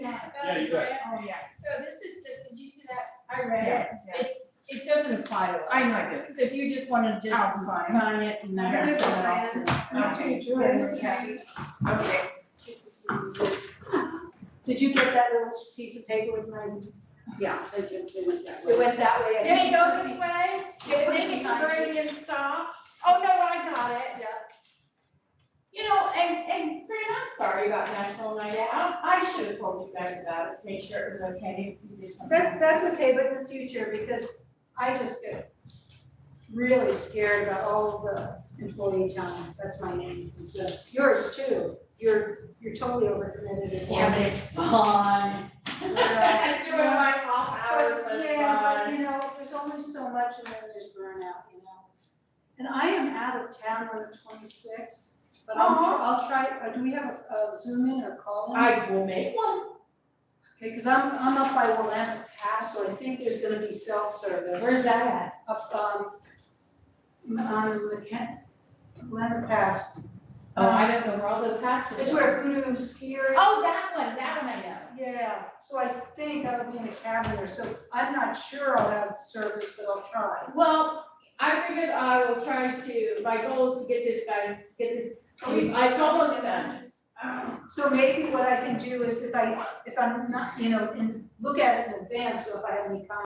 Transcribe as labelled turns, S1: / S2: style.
S1: Yeah, you bet.
S2: Oh, yeah.
S3: So this is just, did you see that? I read it.
S2: Yeah.
S3: It's, it doesn't apply to us.
S2: I know it.
S3: So if you just wanna just
S2: I'll sign.
S3: sign it and then.
S2: I have a
S3: send it off to-
S2: I'll change yours. Okay.
S4: Did you get that little piece of paper with my?
S2: Yeah.
S4: It just- it went that
S2: It
S4: way.
S2: went that way. I
S3: Can it
S2: think.
S3: go this way?
S2: Yeah,
S3: Can it
S2: behind
S3: turn and stop? Oh, no, I got it.
S2: Yeah.
S3: You know, and, and Fran, I'm sorry about National Night Out. I should have told you guys about it to make sure it was okay. if you did something.
S4: That, that's okay, but in the future, because I just get really scared about all of the employee talent, that's my name, and so yours too. You're, you're totally overcommitted.
S3: Yeah, but it's fun.
S4: Yeah.
S3: Doing my off hours, but
S4: But
S3: it's
S4: yeah,
S3: fun.
S4: but you know, there's only so much and then there's burnout, you know. And I am out of town on the twenty-sixth, but I'll, tr-
S3: Uh-huh.
S4: I'll try, uh, do we have a a Zoom in or call in?
S3: I will make one.
S4: Okay, cause I'm, I'm up by Willamette Pass, so I think there's gonna be cell service
S3: Where's that at?
S4: up, um, m- on the Ken, Willamette Pass.
S3: Oh, I don't know where all the passes
S4: It's where Voodoo Skier.
S3: Oh, that one, that one I know.
S4: Yeah, so I think I'll be in a cabin there, so I'm not sure I'll have service, but I'll try.
S3: Well, I figured I will try to, my goal is to get this guys, get this, it's almost done.
S4: So maybe what I can do is if I, if I'm not, you know, and look at it in advance, so if I have any comments